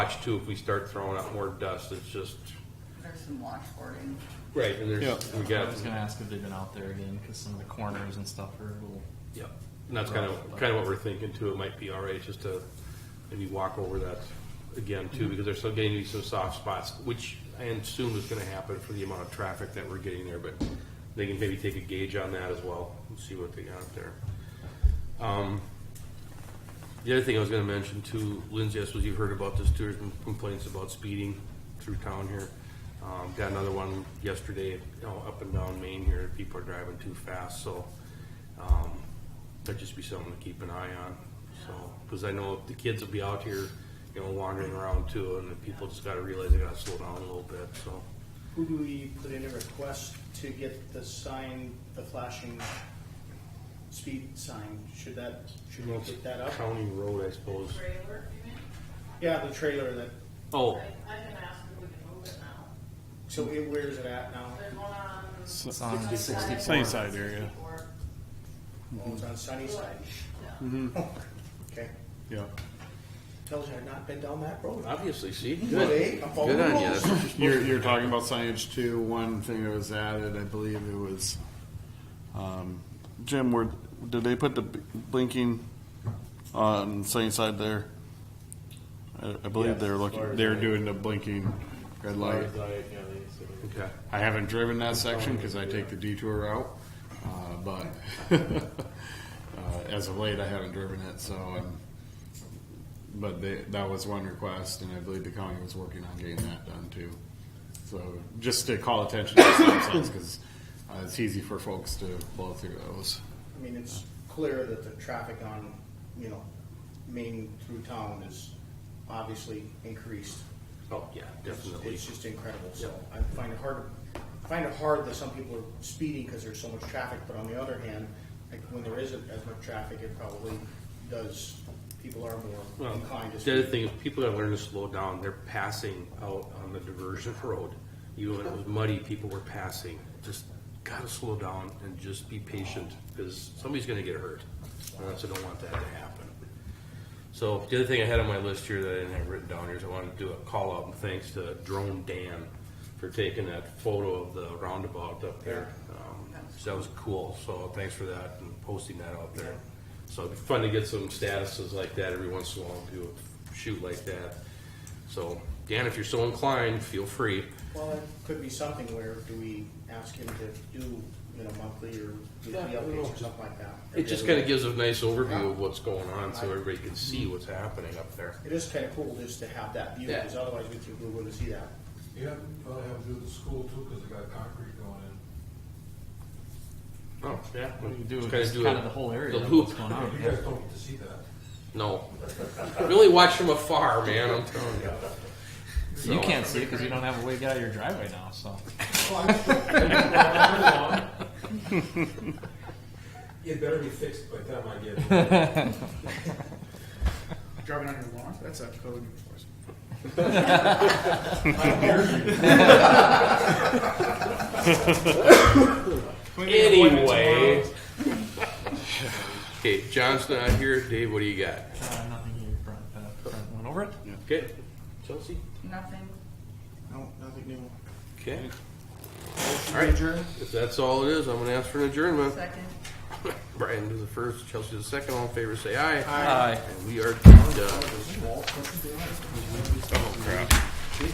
watch too, if we start throwing up more dust, it's just, There's some washboarding. right, and there's, Yeah. we I got, was gonna ask if they've been out there again, because some of the corners and stuff are a little. yeah. And that's kind of, kind of what we're thinking too, it might be all right, just to maybe walk over that again too, because there's still getting to be some soft spots, which I assume is gonna happen for the amount of traffic that we're getting there, but they can maybe take a gauge on that as well, and see what they got there. Um, The other thing I was gonna mention too, Lindsay, I suppose you've heard about this too, there's been complaints about speeding through town here. Um, got another one yesterday, you know, up and down Main here, people are driving too fast, so, um, that'd just be something to keep an eye on, so, cause I know the kids will be out here, you know, wandering around too, and the people just gotta realize they gotta slow down a little bit, so. Who do we put in a request to get the sign, the flashing speed sign? Should that, should we pick that up? County road, I suppose. trailer, you mean? Yeah, the trailer that, Oh, I, I can ask if we can move it now. so it- where is it at now? There's one on. It's on Sunny side area, Oh, it's on Sunnyside. Yeah. Mm-hmm. Okay. yeah. Tells you I've not been down that road. obviously, see? Well, eh, I'm following Good on the you, rules. that's- You're, you're talking about signage too, one thing that was added, I believe it was, um, Jim, where, did they put the b- blinking on sunny side there? I, I believe they're looking, they're doing the blinking red light. Okay, I haven't driven that section because I take the detour route, uh, but uh, as of late, I haven't driven it. So, um, but they, that was one request, and I believe the county was working on getting that done too. So, just to call attention to stop signs because uh, it's easy for folks to blow through those. I mean, it's clear that the traffic on, you know, Main through town is obviously increased. oh, yeah, It's- definitely. It's just incredible, so I find it hard, I find it hard that some people are speeding because there's so much traffic, but on the other hand, like when there isn't as much traffic, it probably does, people are more Well, inclined to the other speed. thing is people that learn to slow down, they're passing out on the diversion road. You know, when it was muddy, people were passing. Just gotta slow down and just be patient, because somebody's gonna get hurt. And that's, I don't want that to happen. So the other thing I had on my list here that I didn't have written down here is I wanted to do a call out and thanks to Drone Dan for taking that photo of the roundabout up there. Um, So that was cool, so thanks for that and posting that out there. So it'd be fun to get some statuses like that every once in a while, do a shoot like that. So Dan, if you're so inclined, feel free. Well, it could be something where do we ask him to do, you know, monthly or weekly Yeah, I don't know. updates or something like that? It just kind of gives a nice overview of what's going on, so everybody can see what's happening up there. It is kind of cool just to have that view, Yeah. because otherwise we think we wouldn't see that. Yeah, probably have to do the school too, because they got concrete going in. Oh, yeah. What do you do? Just It's do kind a- of the whole area. the of loop. what's going on. You guys don't get to see that. No. Really watch from afar, man, I'm telling you. You uh, can't see it because you don't have a way out of your driveway now, so. uh, It better be fixed by the time I get there. Driving on your lawn? That's a code enforcement. Anyway. Okay, John's not here. Dave, what do you got? Uh, nothing here, Brent, uh, Brent went over it. Okay. Chelsea? Nothing. No, nothing new. Okay. All right, if that's all it is, I'm gonna ask for an adjournment. Second. Brian do the first, Chelsea the second, all in favor, say aye. Aye. And we are done.